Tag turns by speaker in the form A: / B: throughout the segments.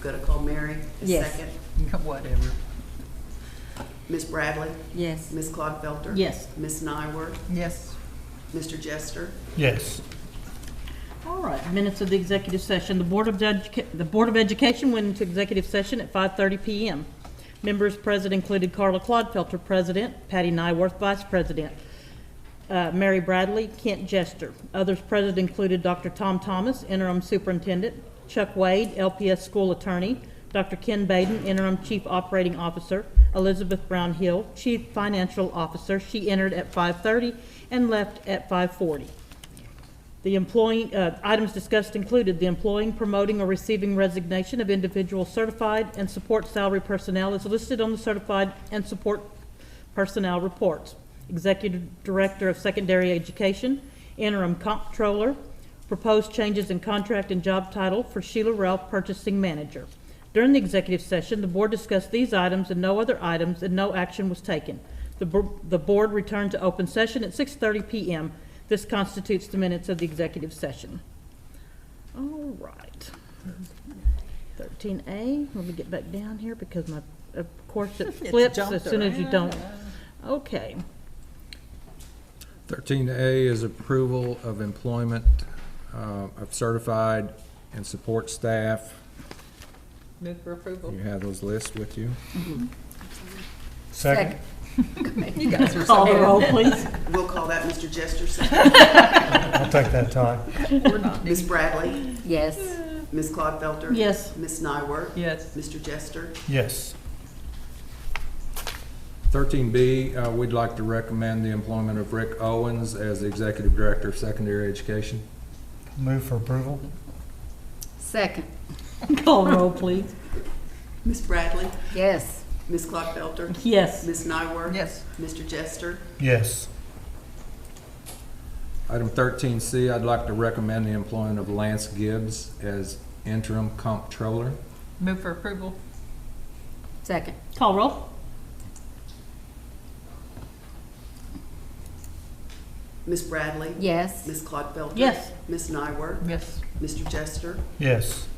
A: Gonna call Mary? a
B: Yes.
A: Second.
C: Whatever.
A: Ms. Bradley?
B: Yes.
A: Ms. Clodfelter?
B: Yes.
A: Ms. Nyworth?
C: Yes.
A: Mr. Jester?
D: Yes.
B: All right, minutes of the executive session. The Board of Educa- the Board of Education went into executive session at 5:30 PM. Members present included Carla Clodfelter, President, Patty Nyworth, Vice President, uh, Mary Bradley, Kent Jester. Others present included Dr. Tom Thomas, Interim Superintendent, Chuck Wade, LPS School Attorney, Dr. Ken Baden, Interim Chief Operating Officer, Elizabeth Brown Hill, Chief Financial Officer. She entered at 5:30 and left at 5:40. The employing, uh, items discussed included the employing, promoting, or receiving resignation of individual certified and support salary personnel as listed on the certified and support personnel reports. Executive Director of Secondary Education, interim comptroller, proposed changes in contract and job title for Sheila Ralph, purchasing manager. During the executive session, the board discussed these items and no other items, and no action was taken. The, bo- the board returned to open session at 6:30 PM. This constitutes the minutes of the executive session. All right. 13A, let me get back down here because my, of course, it flips as
C: jumped
B: soon as you don't. Okay,
E: Thirteen A is approval of employment uh, of certified and support staff.
C: Move for approval.
E: You have those lists with you?
D: Second.
C: You guys are
B: call
C: so,
B: the roll, please.
A: We'll call that Mr. Jester. second.
D: I'll take that time.
C: we're not.
A: Ms. Bradley?
F: Yes.
A: Ms. Clodfelter?
B: Yes.
A: Ms. Nyworth?
C: Yes.
A: Mr. Jester?
D: Yes.
E: Thirteen B, uh, we'd like to recommend the employment of Rick Owens as the Executive Director of Secondary Education.
D: Move for approval?
F: Second.
B: Call the roll, please.
A: Ms. Bradley?
F: Yes.
A: Ms. Clodfelter?
B: Yes.
A: Ms. Nyworth?
C: Yes.
A: Mr. Jester?
D: Yes.
E: Item thirteen C, I'd like to recommend the employment of Lance Gibbs as interim comptroller.
C: Move for approval.
F: Second.
B: Call roll?
A: Ms. Bradley?
F: Yes.
A: Ms. Clodfelter?
B: Yes.
A: Ms. Nyworth?
C: Yes.
A: Mr. Jester?
D: Yes.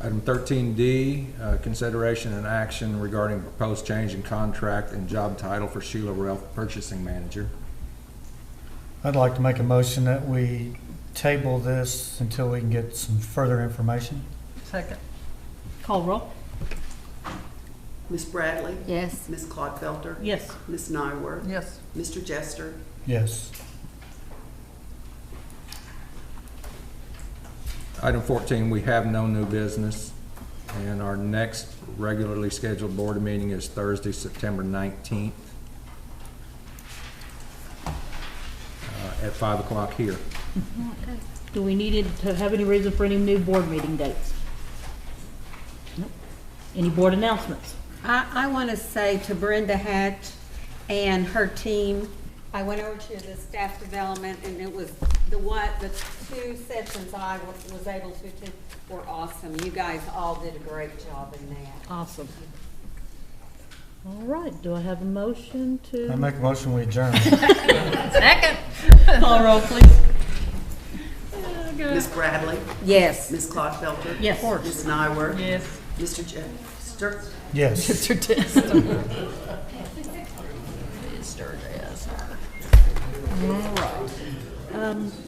E: Item thirteen D, uh, consideration and action regarding proposed change in contract and job title for Sheila Ralph, Purchasing Manager.
D: I'd like to make a motion that we table this until we can get some further information.
C: Second.
B: Call roll?
A: Ms. Bradley?
F: Yes.
A: Ms. Clodfelter?
B: Yes.
A: Ms. Nyworth?
C: Yes.
A: Mr. Jester?
D: Yes.
E: Item 14, we have no new business, and our next regularly scheduled board meeting is Thursday, September 19th uh, at 5 o'clock here.
B: Do we need it to have any reason for any new board meeting dates? Nope. Any board announcements?
G: I, I want to say to Brenda Hatch and her team, I went over to the staff development and it was the one, the two sessions I was, was able to attend were awesome. You guys all did a great job in that.
B: Awesome. All right, do I have a motion
D: I
B: to?
D: make a motion we adjourn.
F: Second.
B: Call roll, please.
A: Ms. Bradley?
F: Yes.
A: Ms. Clodfelter?
B: Yes.
A: Ms. Nyworth?
C: Yes.
A: Mr. Jester?
D: Yes.
B: Um,